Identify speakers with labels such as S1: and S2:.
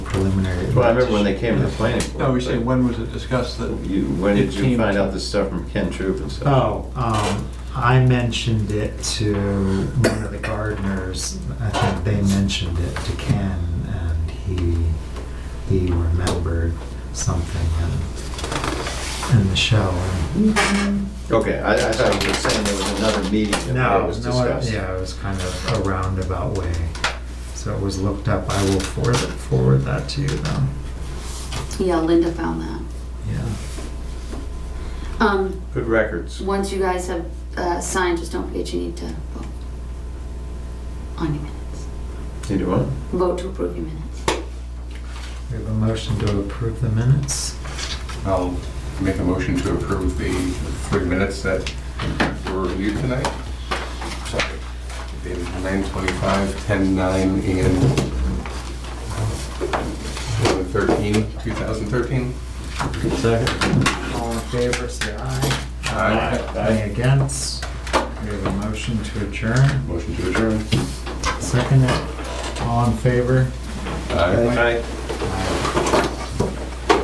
S1: Well,
S2: Well, I remember when they came to the planning board.
S3: No, we say,
S2: but
S3: when was it discussed that?
S2: You, when
S3: it
S2: did you
S3: came
S2: find
S3: to-
S2: out this stuff from Ken Troop and stuff?
S1: Oh, um, I mentioned it to one of the gardeners. I think they mentioned it to Ken, and he he remembered something in, in the show.
S3: Oh.
S2: Okay, I, I thought you were saying there was another meeting that
S1: No,
S2: it was
S1: no, I-
S2: discussed.
S1: yeah, it was kind of a roundabout way. So it was looked up. I will forward it, forward that to you though.
S4: Yeah, Linda found that.
S1: Yeah.
S4: Um,
S2: Good records.
S4: once you guys have, uh, signed, just don't forget you need to vote on your minutes.
S2: You do what?
S4: Vote to approve your minutes.
S1: We have a motion to approve the minutes.
S5: I'll make a motion to approve the three minutes that were reviewed tonight. Sorry, dated 9:25, 10:09, and 13, 2013.
S1: All in favor, say aye. Any against? We have a motion to adjourn.
S5: Motion to adjourn.
S1: Second it. All in favor?
S5: Aye.
S2: Aye.
S1: Aye.